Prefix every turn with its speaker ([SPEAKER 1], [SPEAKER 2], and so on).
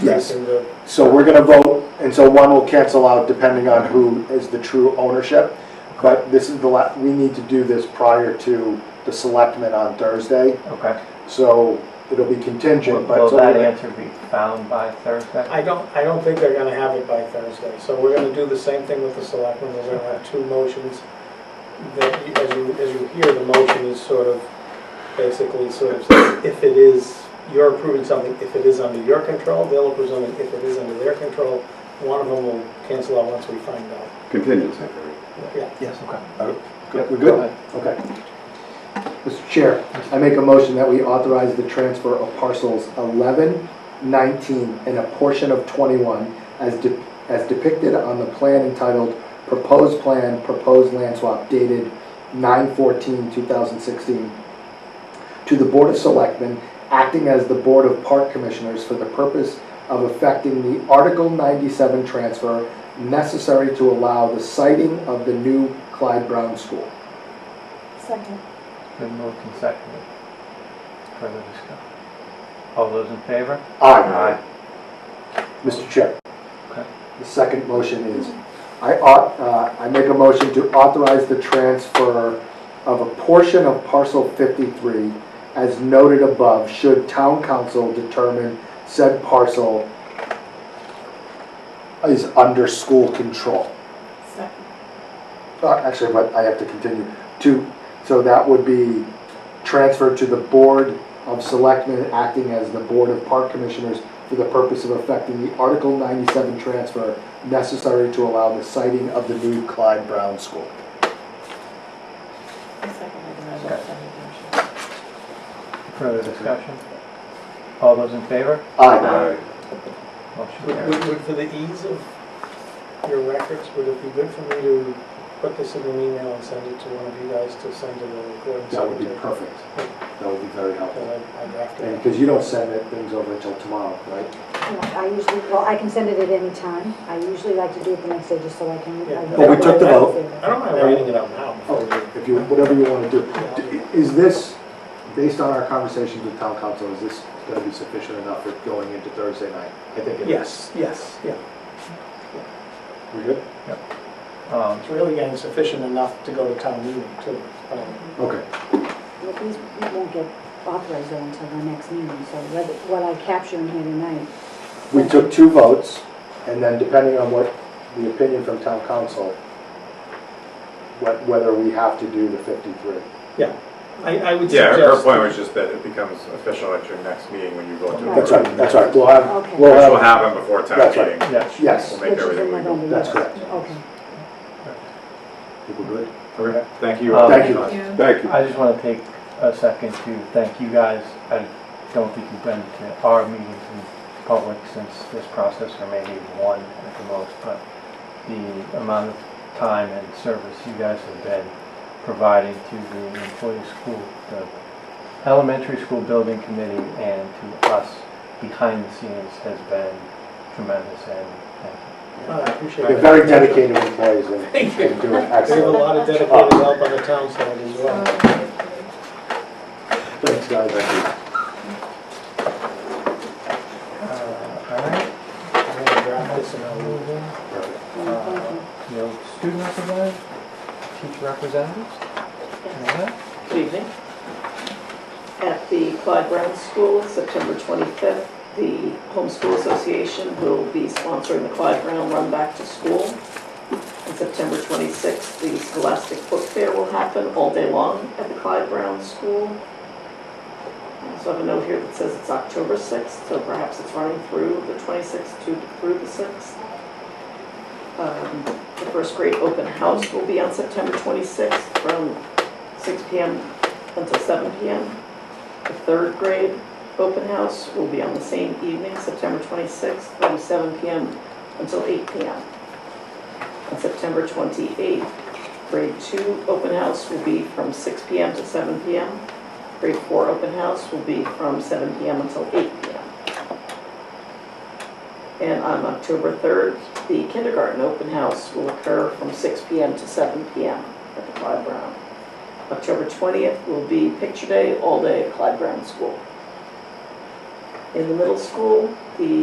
[SPEAKER 1] Yes.
[SPEAKER 2] increasing the,
[SPEAKER 1] So we're gonna vote, and so one will cancel out depending on who is the true ownership. But this is the la, we need to do this prior to the selectmen on Thursday,
[SPEAKER 3] Okay.
[SPEAKER 1] so it'll be
[SPEAKER 3] Will
[SPEAKER 1] contingent, but.
[SPEAKER 3] will
[SPEAKER 1] so
[SPEAKER 3] that
[SPEAKER 1] we're-
[SPEAKER 3] answer be found by Thursday?
[SPEAKER 2] I don't, I don't think they're gonna have it by Thursday. So we're gonna do the same thing with the selectmen, we're gonna have two motions. That, you- as you, as you hear, the motion is sort of, basically sort of, if it is, you're approving something, if it is under your control, they'll approve something, if it is under their control, one of them will cancel out once we find out.
[SPEAKER 4] contingency.
[SPEAKER 2] Yeah.
[SPEAKER 3] Yes, okay.
[SPEAKER 1] Good, We're good? Okay. Mr. Chair, I make a motion that we authorize the transfer of parcels 11, 19, and a portion of 21 as de- as depicted on the plan entitled Proposed Plan, Proposed Land Swap dated 9/14/2016 to the Board of Selectmen, acting as the Board of Park Commissioners for the purpose of effecting the Article 97 transfer necessary to allow the siting of the new Clyde Brown School.
[SPEAKER 5] Second.
[SPEAKER 3] Been moved and seconded. Further discussion? All those in favor?
[SPEAKER 1] Aye. Mr. Chair.
[SPEAKER 3] Okay.
[SPEAKER 1] The second motion is, I ought, uh, I make a motion to authorize the transfer of a portion of parcel 53 as noted above, should town council determine said parcel is under school control.
[SPEAKER 5] Second.
[SPEAKER 1] Uh, Actually, but I have to continue. To, so that would be transferred to the Board of Selectmen, acting as the Board of Park Commissioners for the purpose of effecting the Article 97 transfer necessary to allow the siting of the new Clyde Brown School.
[SPEAKER 5] I seconded and I will second the motion.
[SPEAKER 3] Further discussion? All those in favor?
[SPEAKER 1] Aye.
[SPEAKER 3] Motion
[SPEAKER 2] Would,
[SPEAKER 3] carries.
[SPEAKER 2] would- would, for the ease of your records, would it be good for me to put this in an email and send it to one of you guys to send to the recording
[SPEAKER 1] That would be
[SPEAKER 2] secretary?
[SPEAKER 1] perfect. That would be very helpful.
[SPEAKER 2] Because I- I drafted it.
[SPEAKER 1] Because you don't send it- things over until tomorrow, right?
[SPEAKER 6] Yeah, I usually, well, I can send it at any time. I usually like to do it the next day just so I can.
[SPEAKER 2] Yeah.
[SPEAKER 1] But we took the vote.
[SPEAKER 2] I don't mind writing it out now. before we-
[SPEAKER 1] Oh, If you, whatever you want to do. D- Is this, based on our conversations with town council, is this going to be sufficient enough for going into Thursday night? I think it is.
[SPEAKER 2] Yes, yes, yeah.
[SPEAKER 1] We good?
[SPEAKER 3] Um,
[SPEAKER 2] It's really getting sufficient enough to go to town meeting too. Um,
[SPEAKER 1] Okay.
[SPEAKER 6] Well, these, these won't get authorized though until the next meeting, so what, what I capture in here tonight.
[SPEAKER 1] We took two votes, and then depending on what the opinion from town council, wh- whether we have to do the 53.
[SPEAKER 2] I, I would
[SPEAKER 4] Yeah, her
[SPEAKER 2] suggest,
[SPEAKER 4] point was just that it becomes official at your next meeting when you go to.
[SPEAKER 1] That's right, that's right, we'll have,
[SPEAKER 6] Okay.
[SPEAKER 1] we'll
[SPEAKER 4] Which will
[SPEAKER 1] have,
[SPEAKER 4] happen before town
[SPEAKER 1] That's right.
[SPEAKER 4] meeting.
[SPEAKER 3] Yes.
[SPEAKER 1] yes,
[SPEAKER 4] We'll
[SPEAKER 6] which
[SPEAKER 4] make
[SPEAKER 6] is in
[SPEAKER 4] everything legal.
[SPEAKER 6] November,
[SPEAKER 1] That's
[SPEAKER 6] yes.
[SPEAKER 1] correct.
[SPEAKER 6] Okay.
[SPEAKER 1] think we're good.
[SPEAKER 4] Okay, Thank you.
[SPEAKER 3] Um,
[SPEAKER 1] Thank you.
[SPEAKER 4] Thank
[SPEAKER 3] I just want to take a second to thank you guys. I don't think you've been to our meetings in public since this process, or maybe one at the most, but the amount of time and service you guys have been providing to the employee school, the elementary school building committee, and to us behind the scenes has been tremendous, and thank you.
[SPEAKER 2] I appreciate
[SPEAKER 1] They're
[SPEAKER 2] it.
[SPEAKER 1] very dedicated employees and
[SPEAKER 2] Thank you.
[SPEAKER 1] and doing
[SPEAKER 2] There's a
[SPEAKER 1] excellent.
[SPEAKER 2] lot of dedicated help on the town side as well.
[SPEAKER 1] Thanks, guys.
[SPEAKER 3] Uh, All right,
[SPEAKER 2] I'm gonna draft this and I'll move in.
[SPEAKER 1] Perfect.
[SPEAKER 6] Thank you.
[SPEAKER 3] Uh, you know, student representatives, teacher representatives, and all that.
[SPEAKER 7] Good evening. At the Clyde Brown School, September 25th, the Homeschool Association will be sponsoring the Clyde Brown Run Back to School. On September 26th, the Scholastic Book Fair will happen all day long at the Clyde Brown School. I also have a note here that says it's October 6th, so perhaps it's running through the 26th to through the 6th. Um, The first grade open house will be on September 26th from 6 PM until 7 PM. The third grade open house will be on the same evening, September 26th, from 7 PM until 8 PM. On September 28th, grade two open house will be from 6 PM to 7 PM. Grade four open house will be from 7 PM until 8 PM. And on October 3rd, the kindergarten open house will occur from 6 PM to 7 PM at the Clyde Brown. October 20th will be Picture Day all day at Clyde Brown School. In the middle school, the